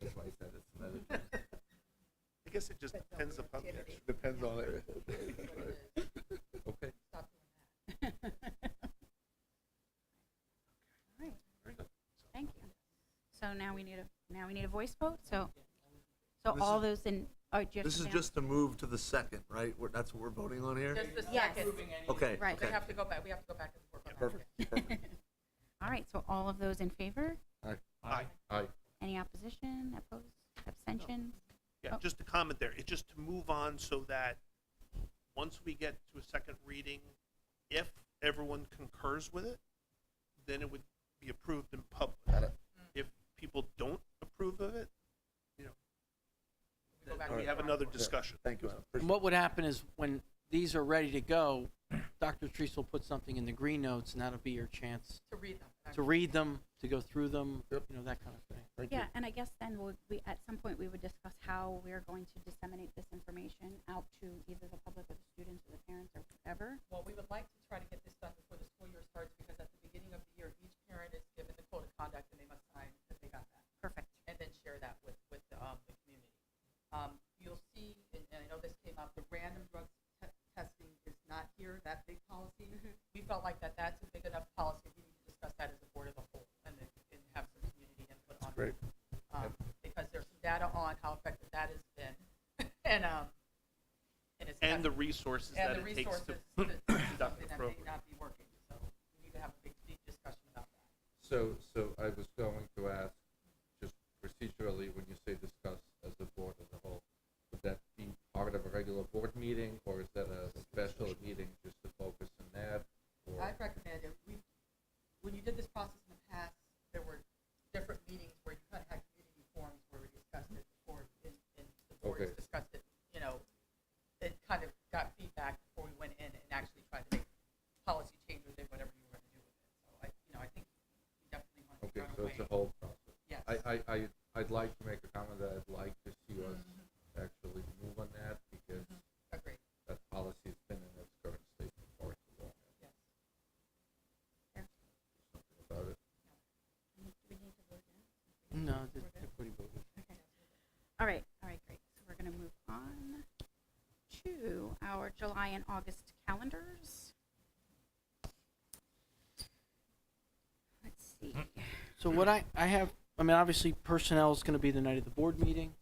I guess it just But no depends upon, the productivity. depends on it. Okay. Stop doing that. Alright, Very good. thank you. So now we need a, now we need a voice vote, so, so This all is- those in, oh, do you have This to is down- just to move to the second, right? We're- That's what we're voting on here? Just the Yes. second, Okay, Right. they okay. have to go back, we have to go back and forth on that. Perfect. perfect. All right, so all of those in favor? Aye. Any opposition, opposed, abstentions? Yeah, Oh. just a comment there. It's just to move on so that once we get to a second reading, if everyone concurs with it, then it would be approved in public. Mm. If people don't approve of it, We go back we and have forth. another discussion. Thank you. Adam. And what would happen is when these are ready to go, Dr. Treese will put something in the green notes, and that'll be your chance To read them. to read them, to go through them, you Yep. know, that kind of thing. Thank you. Yeah, and I guess then we, we, at some point, we would discuss how we're going to disseminate this information out to either the public or the students or the parents or whoever. Well, we would like to try to get this done before the school year starts, because at the beginning of the year, each parent is given the code of conduct, and they must sign that they got that. Perfect. and then share that with, with the, um, the community. Um, you'll see, and, and I know this came up, the random drug te- testing is not here, that big policy. We felt like that, that's a big enough policy, we need to discuss that as a board of the whole, and then, and have some community input on it. Great. Um, because there's some data on how effective that has been, and, um, and it's. And the not- resources and that the it takes to resources that- conduct the That may program. not be working, so we need to have a big, deep discussion about that. So, so I was going to ask, just procedurally, when you say discuss as a board as a whole, would that be part of a regular board meeting, or is that a special meeting just to focus on that? or- I'd recommend if we, when you did this process in the past, there were different meetings where you kind of had community forums where we discussed it before, and, and the boards Okay. discussed it, you know, it kind of got feedback before we went in and actually tried to make policy changes in whatever you were gonna do with it. So I, you know, I think we definitely want to Okay, run so it's a away. whole process. Yes. I, I, I, I'd like to make a comment that I'd like to see us actually move on that, because Agreed, that policy has been in its current state for far too long. yes. Something about it. Mm-hmm. No, the- the pretty vote is- All right, all right, great. So we're going to move on to our July and August calendars. Let's see. Hmm. So what I, I have, I mean, obviously personnel is going to be the night of the board meeting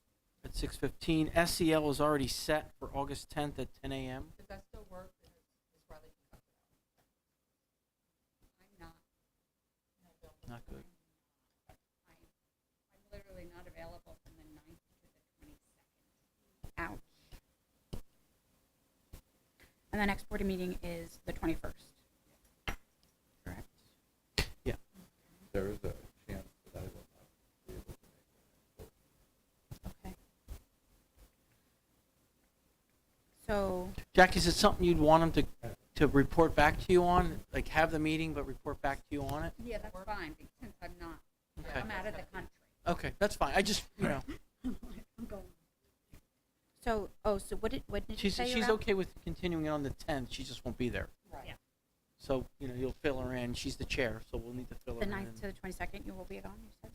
at 6:15. SEL E is already set for August 10th at 10 a.m. Does that still work? Is is Riley can cut it out? I'm not. Not good. I'm literally not available from the ninth to the twenty-second. Ouch. And the next board meeting is the twenty-first. Correct. There is a chance that I will not be able to make it. Okay. So, Jack, is it something you'd want them to, to report back to you on? Like have the meeting, but report back to you on it? Yeah, that's fine, be- since I'm not, Okay, I'm out of the country. okay, that's fine. I just, you know, I'm going. so, oh, so what did, what did you she's, say she's about- okay with continuing it on the 10th. She just won't be there. Right. So, you know, you'll fill her in. She's the chair, so we'll need to fill her The in. ninth to the twenty-second, you will be gone, you said?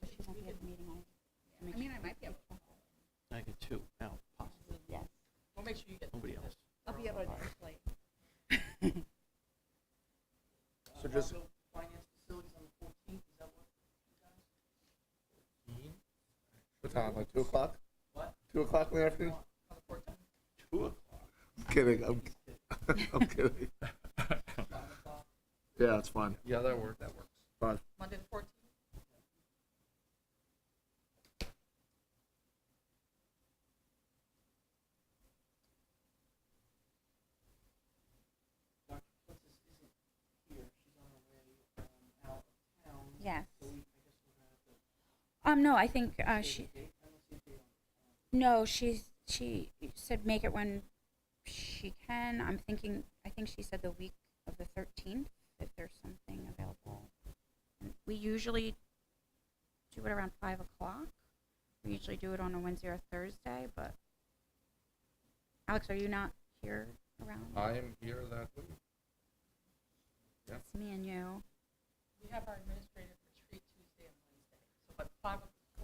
So She won't be at the meeting, I. I mean, I might be able to, I get two now, possibly. yes, We'll make sure you get. Nobody else. I'll be able to actually. So just- Finance facilities on the fourteenth, is that what? What time, like 2 o'clock? What? 2 o'clock in the afternoon? On the fourteenth? Kidding, I'm, I'm kidding. Yeah, it's fine. Yeah, that works. That works. Fine. Monday the fourteenth? Dr. Flitzis isn't here, she's on her way, um, out of town, Yes. so we, I guess we're gonna have to. Um, no, I think, uh, save she, the date. I don't see a date on it. No, she's she said make it when she can. I'm thinking. I think she said the week of the 13th if there's something available. We usually do it around five o'clock. We usually do it on a Wednesday or Thursday, but Alex, are you not here around? I am here that week. yeah. It's me and you. We have our administrative retreat Tuesday and Wednesday, so but five